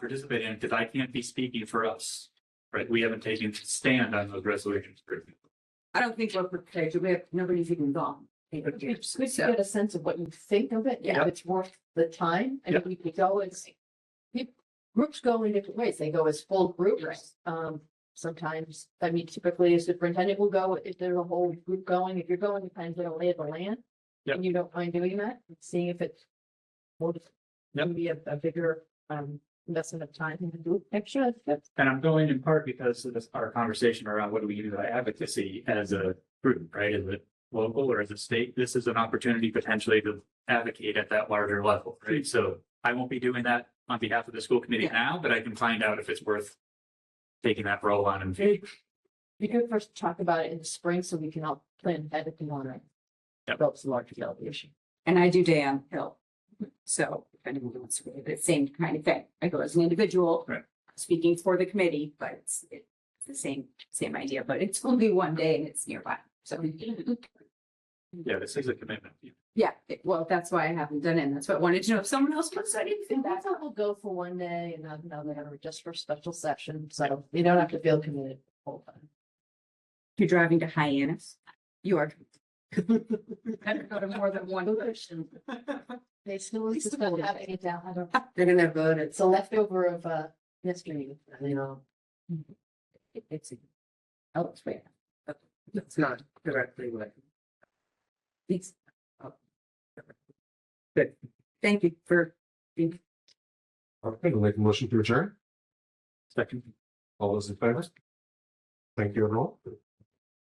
participate in because I can't be speaking for us. Right? We haven't taken stand on those resolutions. I don't think we're prepared. We have, nobody's even gone. It's good to get a sense of what you think of it, and if Yep. it's worth the time, and if we could go and see. Peop- Groups go in different ways, they go as full groups, um, sometimes, I mean, typically a superintendent will go, if there's a whole group going, if you're going, you kind of get a lay of the land. Yep. And you don't mind doing that, and seeing if it's. more Yep. Maybe a, a bigger, um, investment of time in the group, actually, that's, And I'm going in part because of this, our conversation around what do we do about advocacy as a group, right? As a local or as a state, this is an opportunity potentially to advocate at that larger level, right? So I won't be doing that on behalf of the school committee Yeah. now, but I can find out if it's worth taking that role on and Great. we could first talk about it in the spring, so we can all plan ahead if you want to. Yep. Develops a larger delegation. And I do day on hill. So if anyone wants to, do the same kind of thing. I go as an individual. Right. Speaking for the committee, but it's, it's the same, same idea, but it's only one day and it's nearby. So, yeah, this is a commitment. yeah, it- well, that's why I haven't done it. and That's what I wanted to know if someone else was studying. And that's how we'll go for one day and not another, just for special session, so you don't have to feel committed the whole time. You're driving to Hyannis. You are. Better go to more than one person. They still is Still still have having it down, I don't, They're gonna vote it. it's a leftover of uh yesterday, you know. It's. Oh, it's right. It's not directly what. It's. Good. Thank you for being. Okay, we'll make a motion to adjourn. Second. All those in favor? Thank you, everyone.